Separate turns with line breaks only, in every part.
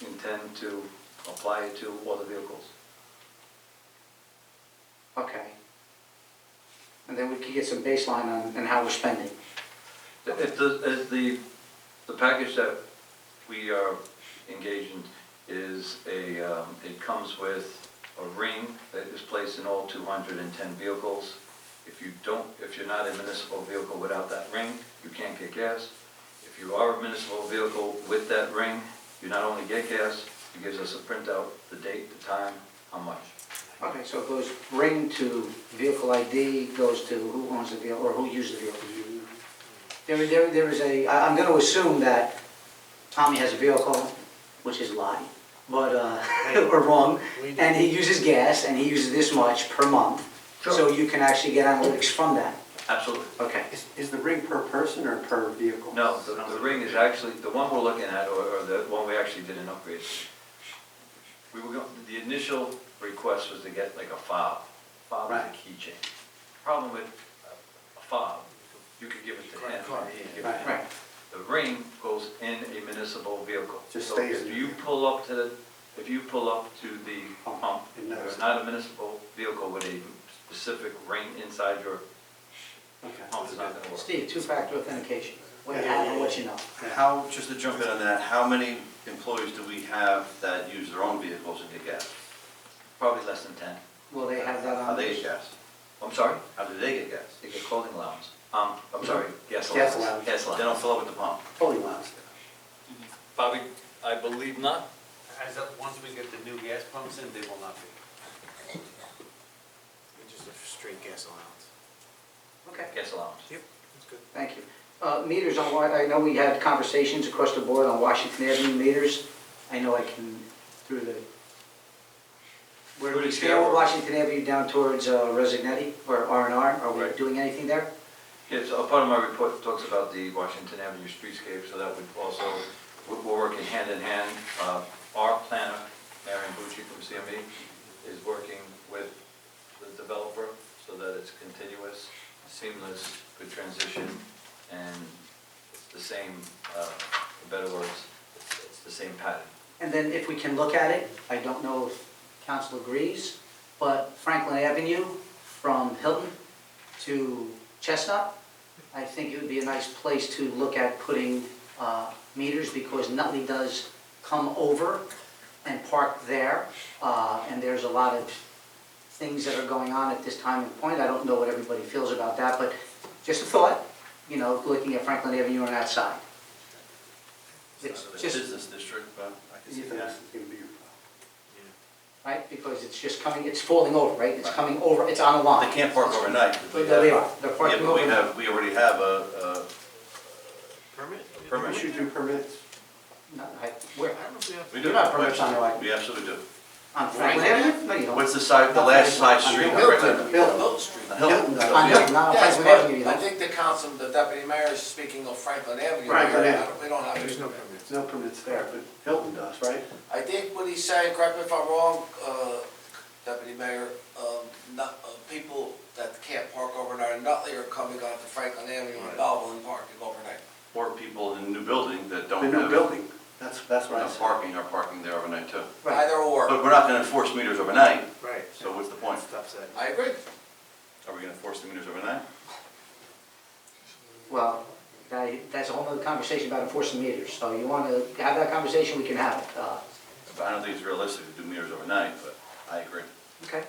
intend to apply it to other vehicles.
Okay. And then we could get some baseline on, on how we're spending.
If the, if the, the package that we are engaged in is a, um, it comes with a ring that is placed in all 210 vehicles. If you don't, if you're not a municipal vehicle without that ring, you can't get gas. If you are a municipal vehicle with that ring, you not only get gas, it gives us a printout, the date, the time, how much.
Okay, so it goes ring to vehicle ID, goes to who owns the vehicle, or who uses the vehicle. There, there, there is a, I- I'm gonna assume that Tommy has a vehicle, which is a lie, but, uh, or wrong,
We do.
and he uses gas, and he uses this much per month. So you can actually get analytics from that.
Absolutely.
Okay.
Is, is the ring per person or per vehicle?
No, the, the ring is actually, the one we're looking at, or, or the one we actually did an upgrade. We were going, the initial request was to get like a fob, fob is a
Right.
keychain. Problem with a fob, you could give it to him, and he'd give it to him.
Right,
The ring goes in a municipal vehicle.
Just
So
stays
If
in
you
there.
pull up to, if you pull up to the pump,
It knows.
it's not a municipal vehicle with a specific ring inside your
Okay.
pump, it's not gonna work.
Steve, two-factor authentication, what you have and what you know.
How, just to jump in on that, how many employees do we have that use their own vehicles and get gas?
Probably less than ten.
Will they have that on?
How they get gas?
I'm sorry?
How do they get gas?
They get clothing allowance. Um, I'm sorry, gas allowance.
Gas allowance.
Gas
They don't fill up at the pump.
Fully last.
Bobby, I believe not.
As of, once we get the new gas pumps in, they will not be. Just a straight gas allowance.
Okay.
Gas allowance.
Thank you. Uh, Meters on, Wa- I know we had conversations across the board on Washington Avenue meters. I know I can, through the, where
Through
we
the chair.
scale Washington Avenue down towards uh, Resignetti or R and R, are we
Right.
doing anything there?
Yeah, so a part of my report talks about the Washington Avenue streetscape, so that would also, we're we're working hand in hand. Uh, Our planner, Marion Bucci from CME, is working with the developer so that it's continuous, seamless, good transition, and it's the same, uh, in better words, it's- it's the same pattern.
And then if we can look at it, I don't know if council agrees, but Franklin Avenue from Hilton to Chestnut, I think it would be a nice place to look at putting uh, meters because Nutley does come over and park there. uh, And there's a lot of things that are going on at this time and point. I don't know what everybody feels about that, but just a thought, you know, looking at Franklin Avenue on that side. It's
It's not a
just-
business district, but I can see
Ethan, this
that.
is gonna be your problem.
right? Because it's just coming, it's falling over, right? It's coming over, it's on the line.
They can't park overnight. 'cause we
But they
have-
are, they're
Yeah,
parking
but we
over.
have, we already have a,
Permit?
a permit.
Issue through permits.
No, I- Where,
I don't know if we have.
We
You
do.
don't have permits on the way.
We absolutely do.
on Franklin Avenue? No, you don't.
What's the side, the last side street? right there?
Milton Street.
The
Hilton.
Hilton.
On
Yeah.
Hilton, not on
Yes,
Franklin Avenue, you
but I
don't.
think the council, the deputy mayor is speaking of Franklin Avenue.
Franklin
We
Avenue.
don't- We don't have
There's
it.
no permits.
There's no permits there, but Hilton does, right?
I think what he's saying, correct me if I'm wrong, uh, deputy mayor, um, not, uh, people that can't park overnight in Nutley are coming onto Franklin Avenue and Belleville and parking overnight.
Or people in the new building that
The
don't
new
have,
building, that's, that's what I
have
said.
parking are parking there overnight too.
Right.
Either or.
But we're not gonna enforce meters overnight,
Right.
so what's the point?
Stops that.
I agree.
Are we gonna enforce the meters overnight?
Well, that- that's a whole nother conversation about enforcing meters, so you want to have that conversation, we can have it. Uh,
I don't think it's realistic to do meters overnight, but I agree.
Okay.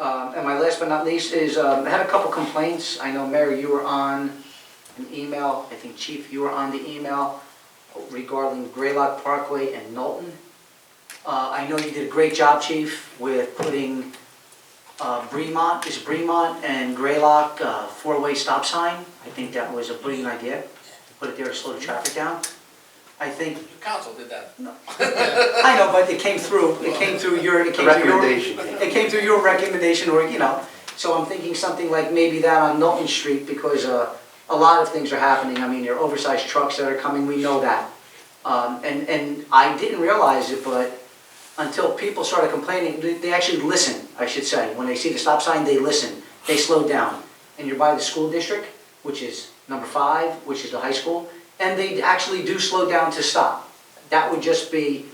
Um, And my last but not least is, um, I had a couple complaints. I know, Mary, you were on an email, I think Chief, you were on the email regarding Graylock Parkway and Knowlton. Uh, I know you did a great job, Chief, with putting uh, Bremont, is Bremont and Graylock uh, four-way stop sign. I think that was a brilliant idea, to put it there to slow the traffic down. I think,
The council did that.
I know, but it came through, it came through your, it
The
came through your...
recommendation.
It came through your recommendation, or, you know, so I'm thinking something like maybe that on Knowlton Street, because uh, a lot of things are happening. I mean, there are oversized trucks that are coming, we know that. Um, And, and I didn't realize it, but until people started complaining, they- they actually listen, I should say. When they see the stop sign, they listen, they slow down. And you're by the school district, which is number five, which is the high school, and they actually do slow down to stop. That would just be